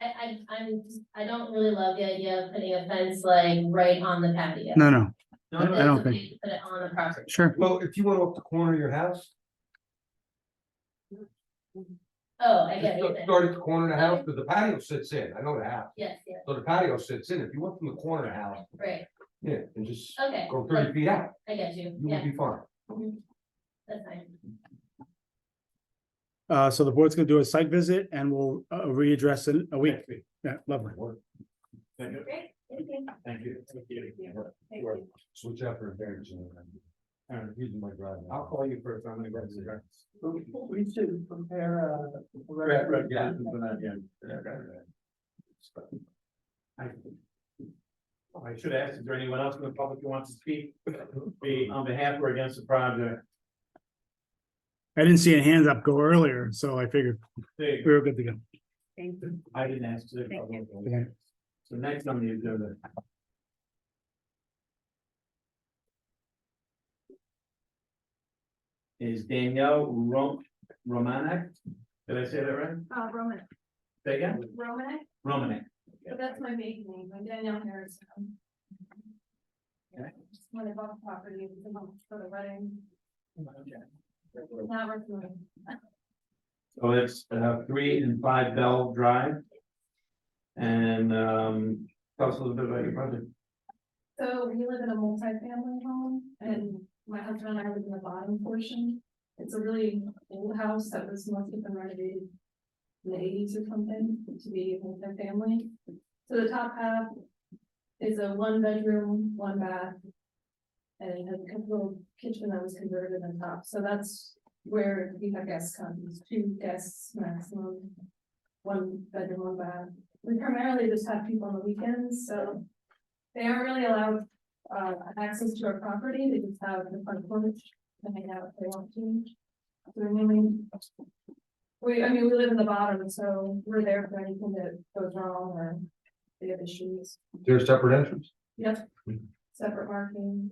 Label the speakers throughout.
Speaker 1: I, I'm, just- I don't really love the idea of putting a fence like right on the patio.
Speaker 2: No, no,
Speaker 1: But
Speaker 2: I
Speaker 1: it's
Speaker 2: don't
Speaker 1: okay to Put it on the property.
Speaker 2: sure.
Speaker 3: Well, if you went off the corner of your house,
Speaker 1: Oh, I
Speaker 3: just
Speaker 1: get
Speaker 3: start
Speaker 1: it.
Speaker 3: start at the corner of the house, because the patio sits in, I know the house,
Speaker 1: Yes, yes,
Speaker 3: so the patio sits in, if you went from the corner of the house,
Speaker 1: right,
Speaker 3: yeah, and just
Speaker 1: okay,
Speaker 3: go thirty feet out,
Speaker 1: I get you,
Speaker 3: you would
Speaker 1: yeah,
Speaker 3: be fine.
Speaker 1: mhm. that's fine.
Speaker 2: Uh, so the board's gonna do a site visit and we'll uh, readdress in a week.
Speaker 3: Thank you.
Speaker 2: Yeah, lovely.
Speaker 1: Great, thank you.
Speaker 3: Thank you. Switch out for a variance. and then- I'm using my driveway. I'll call you first, I'm gonna go to the. variance.
Speaker 4: We should uh, prepare a.
Speaker 3: Right, right, yeah. that's what I did. Yeah, right, right.
Speaker 4: I should ask, is there anyone else in the public who wants to speak, be on behalf or against the project?
Speaker 2: I didn't see a hands up go earlier, so I figured
Speaker 4: There you
Speaker 2: we were good to go.
Speaker 4: go. I didn't ask. the public.
Speaker 2: Okay.
Speaker 4: So next on the agenda. Is Danielle Rom- Romanek, did I say that right?
Speaker 5: Uh, Roman,
Speaker 4: Say again,
Speaker 5: Romanek,
Speaker 4: Romanek,
Speaker 5: but that's my maiden name, I'm Danielle Harrison.
Speaker 4: Okay.
Speaker 5: Just When I bought the property, it was a month for the wedding, now we're doing.
Speaker 4: so it's uh three and five Bell Drive. And um, tell us a little bit about your project.
Speaker 5: So we live in a multi-family home and my husband and I live in the bottom portion. It's a really old house that was must have been renovated in the eighties or something to be a multi-family. So the top half is a one bedroom, one bath. And it has a couple of kitchen that was converted on top. So that's where we have guests come, is two guests maximum. One bedroom, one bath. We primarily just have people on the weekends, so they aren't really allowed uh access to our property, they just have the front porch, and hang out if they want to. So I mean. We, I mean, we live in the bottom, so we're there for anything that goes wrong or they have issues,
Speaker 3: Is there a separate entrance?
Speaker 5: yep, separate marking.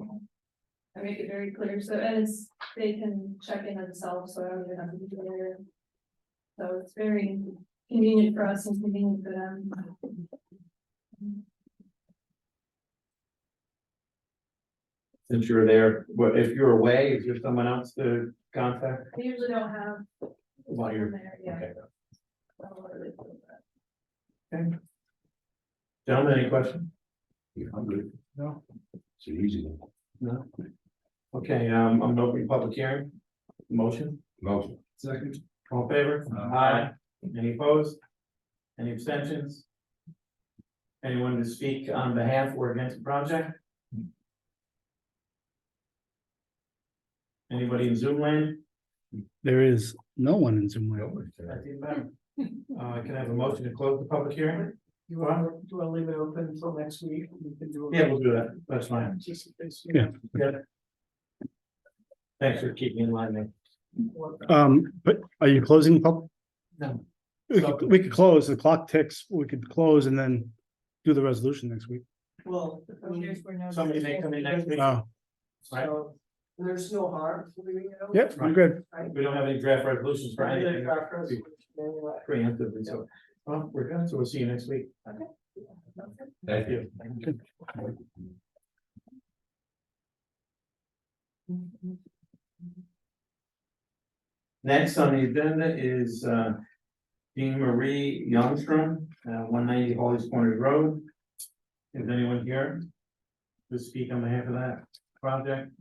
Speaker 5: I make it very clear, so and it's, they can check in themselves, so I don't even have to be there. So it's very convenient for us and convenient for them.
Speaker 4: Since you were there, what if you're away, is there someone else to contact
Speaker 5: They usually don't have.
Speaker 4: while you're?
Speaker 5: there, yeah.
Speaker 4: Okay.
Speaker 5: Oh, really?
Speaker 4: Gentlemen, any questions?
Speaker 3: Yeah, I'm good.
Speaker 4: No.
Speaker 3: It's an easy. one.
Speaker 4: No. Okay, um, I'm opening public hearing, motion,
Speaker 3: Motion.
Speaker 4: second, all in favor?
Speaker 3: Aye.
Speaker 4: Any opposed? Any abstentions? Anyone to speak on behalf or against the project? Anybody in Zoom land?
Speaker 2: There is no one in Zoom land.
Speaker 4: That's even better. Uh, can I have a motion to close the public hearing?
Speaker 6: You want, do you want to leave it open until next week? We can do. it.
Speaker 4: Yeah, we'll do that, that's fine,
Speaker 6: Just in case.
Speaker 2: Yeah.
Speaker 4: thanks for keeping in line there.
Speaker 2: Um, but are you closing the pub?
Speaker 4: No.
Speaker 2: We could, we could close, the clock ticks, we could close and then do the resolution next week.
Speaker 6: Well, I mean,
Speaker 4: Somebody may come in next week,
Speaker 2: Oh,
Speaker 6: so there's no harm to leaving it open.
Speaker 2: yep, I'm good.
Speaker 4: we don't have any draft resolutions for
Speaker 6: Right,
Speaker 4: anything.
Speaker 6: and our first manual.
Speaker 4: preemptively, so, well, we're done, so we'll see you next week.
Speaker 3: Thank you.
Speaker 4: Next on the agenda is, uh, Jean Marie Youngstrom, uh, one ninety Holly's Corners Road. Is anyone here to speak on behalf of that project?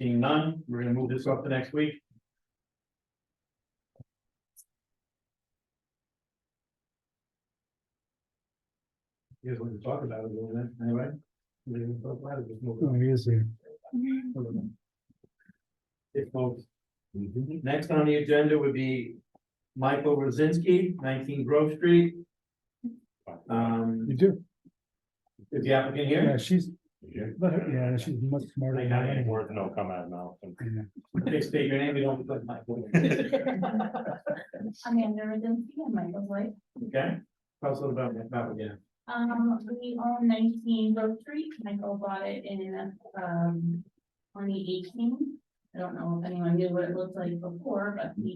Speaker 4: Seeing none, we're gonna move this up to next week. Here's what we talk about, it a little bit, anyway. We didn't talk about it, just move it.
Speaker 2: Oh, he is here.
Speaker 4: If folks.
Speaker 3: Mm-hmm.
Speaker 4: Next on the agenda would be Michael Rosinski, nineteen Grove Street. Um,
Speaker 2: You do?
Speaker 4: is the applicant
Speaker 2: Yeah,
Speaker 4: here?
Speaker 2: she's, let her- yeah, she's much smarter. than I am.
Speaker 4: no comment now.
Speaker 2: Yeah.
Speaker 4: Okay, state your name, we don't put Michael.
Speaker 5: Amanda Rosinski and Michael's wife.
Speaker 4: Okay, tell us a little about, about, yeah,
Speaker 5: Um, we own nineteen Grove Street. Michael bought it in, um, twenty eighteen. I don't know if anyone knew what it looked like before, but he